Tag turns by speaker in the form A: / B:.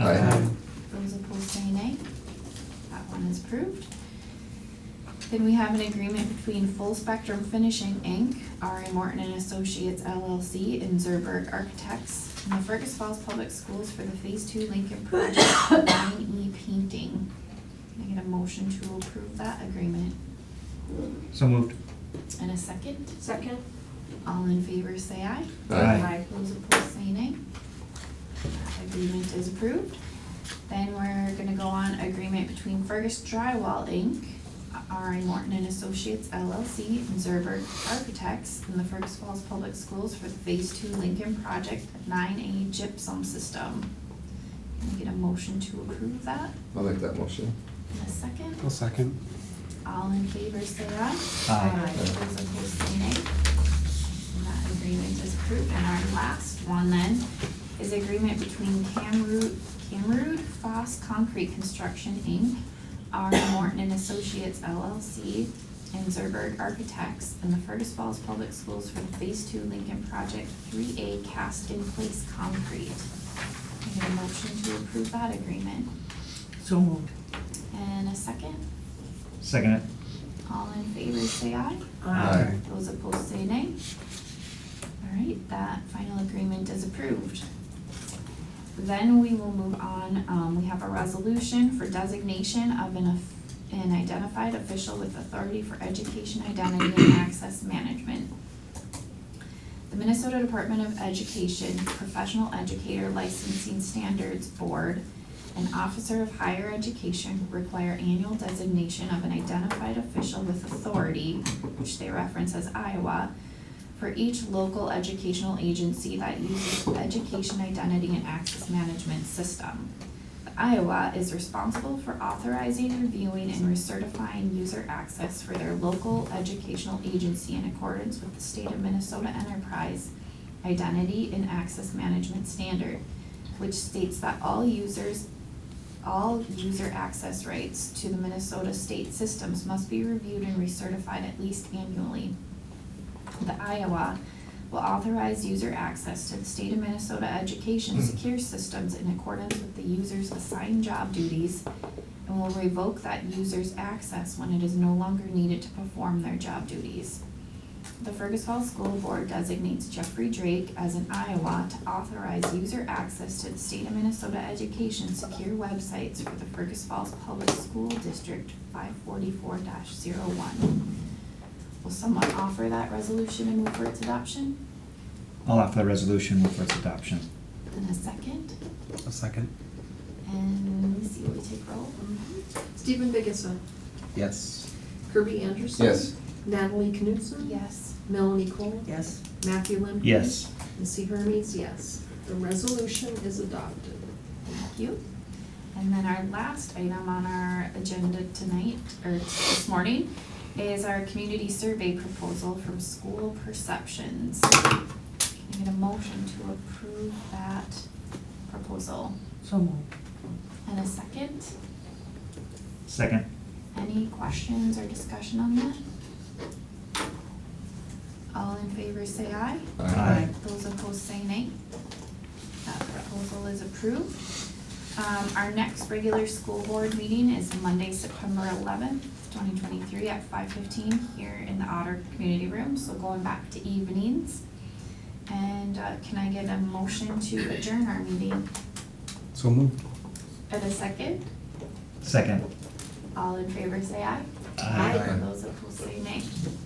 A: Um,
B: that one is approved. Then we have an agreement between Full Spectrum Finishing Inc., R.A. Morton and Associates LLC, and Zerberg Architects, and the Fergus Falls Public Schools for the Phase Two Lincoln Project Nine E Painting. Can I get a motion to approve that agreement?
A: So moved.
B: And a second?
C: Second?
B: All in favor, say aye.
A: Aye.
B: Those opposed, say nay. Agreement is approved. Then we're gonna go on agreement between Fergus Drywall Inc., R I Morton and Associates LLC, and Zerber Architects, and the Fergus Falls Public Schools for the Phase Two Lincoln Project Nine A Gypsum System. Can I get a motion to approve that?
D: I'll make that motion.
B: In a second,
A: I'll second.
B: all in favor, say aye.
A: Aye.
B: Those opposed, say nay. And That agreement is approved. And our last one then is agreement between Camroot, Camroot Foss Concrete Construction, Inc., R. Morton and Associates LLC, and Zerberg Architects, and the Fergus Falls Public Schools for the Phase Two Lincoln Project Three A Cast in Place Concrete. I get a motion to approve that agreement.
C: So moved.
B: And a second?
A: Second it.
B: All in favor, say aye.
D: Aye.
B: Those opposed say nay. All right, that final agreement is approved. Then we will move on, um, we have a resolution for designation of an, of- an identified official with authority for education, identity, and access management. The Minnesota Department of Education Professional Educator Licensing Standards Board an officer of higher education require annual designation of an identified official with authority, which they reference as Iowa, for each local educational agency that uses education identity and access management system. The Iowa is responsible for authorizing, reviewing, and recertifying user access for their local educational agency in accordance with the state of Minnesota Enterprise Identity and Access Management Standard which states that all users, all user access rights to the Minnesota state systems must be reviewed and recertified at least annually. The Iowa will authorize user access to the state of Minnesota education secure systems in accordance with the user's assigned job duties and will revoke that user's access when it is no longer needed to perform their job duties. The Fergus Falls School Board designates Jeffrey Drake as an Iowa to authorize user access to the state of Minnesota education secure websites for the Fergus Falls Public School District five forty-four one Will someone offer that resolution and move for its adoption?
A: I'll offer the resolution for its adoption.
B: In a second,
A: A second.
B: and let me see what we take roll.
C: Stephen Biggessa.
A: Yes.
C: Kirby Anderson.
D: Yes,
C: Natalie Knutson.
B: Yes,
C: Melanie Cole.
E: Yes,
C: Matthew Limkey.
A: Yes.
C: Missy Hermes, yes. The resolution is adopted.
B: thank you. And then our last item on our agenda tonight, or this morning, is our community survey proposal from School Perceptions. Can I get a motion to approve that proposal?
E: so moved.
B: And a second,
A: Second.
B: any questions or discussion on that? All in favor say aye.
A: Aye.
B: Those opposed say nay. That proposal is approved. Um, our next regular school board meeting is Monday, September eleventh, twenty twenty-three at five fifteen here in the Otter Community Room, so going back to evenings. And, uh, can I get a motion to adjourn our meeting
A: So moved.
B: at a second?
A: Second.
B: All in favor say aye.
A: Aye.
B: Those opposed say nay.